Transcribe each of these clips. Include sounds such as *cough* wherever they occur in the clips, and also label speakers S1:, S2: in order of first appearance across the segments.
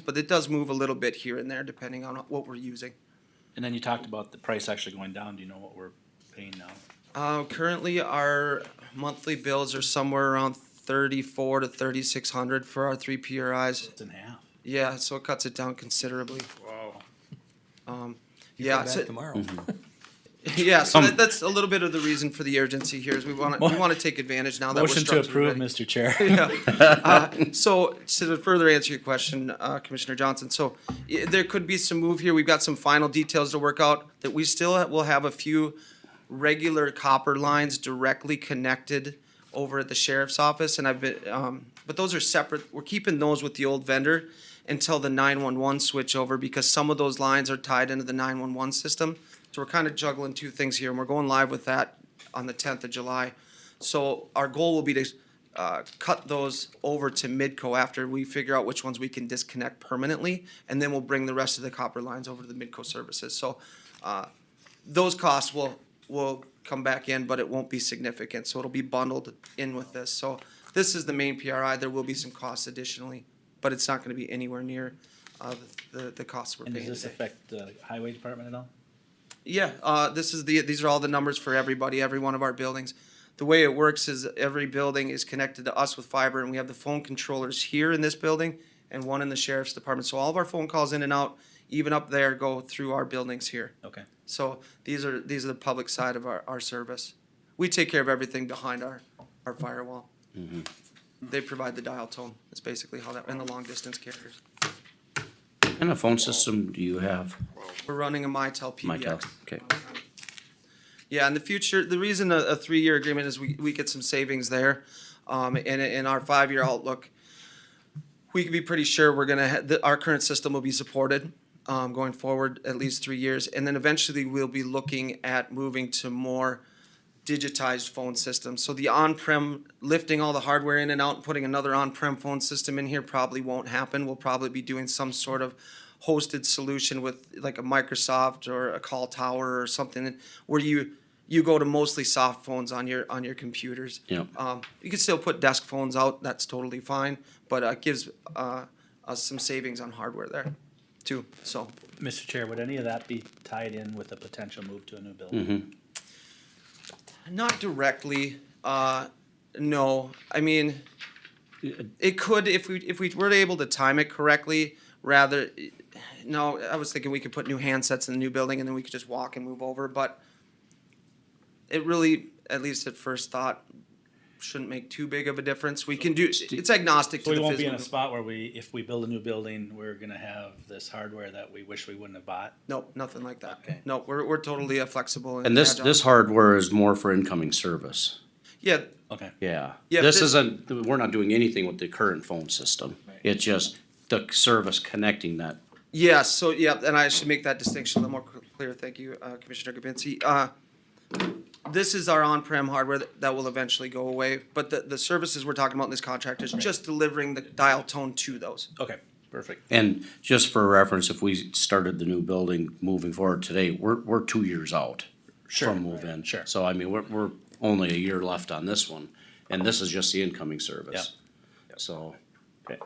S1: but it does move a little bit here and there depending on what we're using.
S2: And then you talked about the price actually going down. Do you know what we're paying now?
S1: Uh, currently, our monthly bills are somewhere around thirty-four to thirty-six hundred for our three PRIs.
S2: It's in half.
S1: Yeah, so it cuts it down considerably.
S2: Wow.
S1: Um,
S3: You come
S1: yeah,
S3: back
S1: so,
S3: tomorrow.
S1: *laughs* yeah, so
S2: Mm-hmm. Um,
S1: that, that's a little bit of the reason for the urgency here is we want to, we want to take advantage now that we're
S2: Motion to
S1: structurally
S2: approve,
S1: ready.
S2: Mr. Chair.
S1: *laughs* Yeah. Uh, So, to further answer your question, uh, Commissioner Johnson, so i- there could be some move here. We've got some final details to work out, that we still ha- will have a few regular copper lines directly connected over at the sheriff's office, and I've been, um, but those are separate. We're keeping those with the old vendor until the nine-one-one switch over, because some of those lines are tied into the nine-one-one system. So we're kind of juggling two things here, and we're going live with that on the tenth of July. So our goal will be to uh, cut those over to Midco after we figure out which ones we can disconnect permanently, and then we'll bring the rest of the copper lines over to the Midco services. So uh, those costs will, will come back in, but it won't be significant, so it'll be bundled in with this. So this is the main PRI, there will be some costs additionally, but it's not gonna be anywhere near uh, the, the- the costs we're
S2: And does
S1: paying
S2: this
S1: today.
S2: affect the highway department at all?
S1: Yeah, uh, this is the, these are all the numbers for everybody, every one of our buildings. The way it works is every building is connected to us with fiber and we have the phone controllers here in this building and one in the sheriff's department. So all of our phone calls in and out, even up there, go through our buildings here.
S2: Okay.
S1: So these are, these are the public side of our, our service. We take care of everything behind our, our firewall. They provide the dial tone. That's basically how that, and the long distance carriers.
S4: What kind of phone system do you have,
S1: We're running a Mitel
S4: Michael?
S1: PBX.
S4: Okay.
S1: Yeah, in the future, the reason a, a three-year agreement is we, we get some savings there. Um, and in our five-year outlook, we can be pretty sure we're gonna, ha- that our current system will be supported, um, going forward at least three years. And then eventually we'll be looking at moving to more digitized phone systems. So the on-prem, lifting all the hardware in and out and putting another on-prem phone system in here probably won't happen. We'll probably be doing some sort of hosted solution with like a Microsoft or a call tower or something where you, you go to mostly soft phones on your, on your computers.
S4: Yep.
S1: Um, you can still put desk phones out, that's totally fine, but, uh, gives, uh, us some savings on hardware there too, so.
S2: Mr. Chair, would any of that be tied in with a potential move to a new building?
S1: Not directly, uh, no. I mean, it could, if we, if we were able to time it correctly, rather, no, I was thinking we could put new handsets in the new building and then we could just walk and move over, but it really, at least at first thought, shouldn't make too big of a difference. We can do, it's agnostic
S2: So
S1: to
S2: we
S1: the
S2: won't be in a
S1: physical.
S2: spot where we, if we build a new building, we're gonna have this hardware that we wish we wouldn't have bought?
S1: Nope, nothing like that.
S2: Okay.
S1: No, we're, we're totally uh, flexible.
S4: And this,
S1: agile.
S4: this hardware is more for incoming service.
S1: Yeah,
S2: Okay.
S4: Yeah.
S1: Yeah,
S4: This
S1: this-
S4: isn't, we're not doing anything with the current phone system. It's just the service connecting that.
S1: Yeah, so, yeah, and I should make that distinction a little more cl- clear, thank you, uh, Commissioner Gabinski. Uh, This is our on-prem hardware that that will eventually go away, but the, the services we're talking about in this contract is just delivering the dial tone to those.
S2: Okay, perfect.
S4: And just for reference, if we started the new building moving forward today, we're, we're two years out from move-in.
S2: Sure.
S4: So I mean, we're, we're only a year left on this one, and this is just the incoming service. So,
S2: Okay.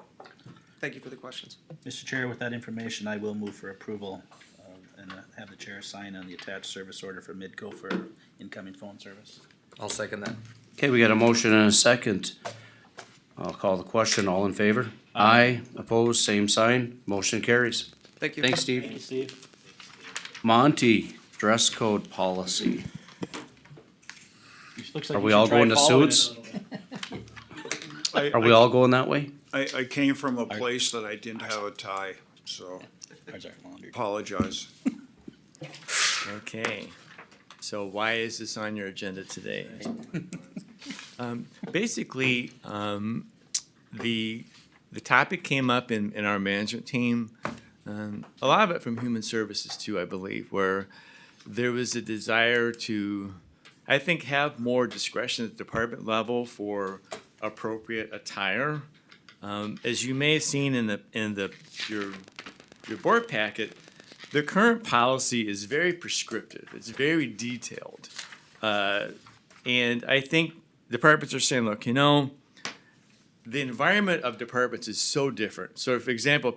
S1: Thank you for the questions.
S2: Mr. Chair, with that information, I will move for approval uh, and uh, have the chair sign on the attached service order for Midco for incoming phone service.
S3: I'll second that.
S4: okay, we got a motion and a second. I'll call the question. All in favor? Aye. Opposed, same sign. Motion carries.
S1: Thank you.
S4: Thanks, Steve.
S2: Steve.
S4: Monty, dress code policy.
S2: Looks like
S4: Are
S2: you
S4: we
S2: should
S4: all
S2: try
S4: going to
S2: following it a
S4: suits?
S2: little.
S5: I,
S4: Are we all going that way?
S5: I, I came from a place that I didn't have a tie, so
S2: There's our laundry.
S5: apologize.
S6: Okay, so why is this on your agenda today? Um, Basically, um, the, the topic came up in, in our management team, um, a lot of it from Human Services too, I believe, where there was a desire to, I think, have more discretion at the department level for appropriate attire. Um, As you may have seen in the, in the, your, your board packet, the current policy is very prescriptive. It's very detailed, uh, and I think departments are saying, look, you know, the environment of departments is so different. So, for example,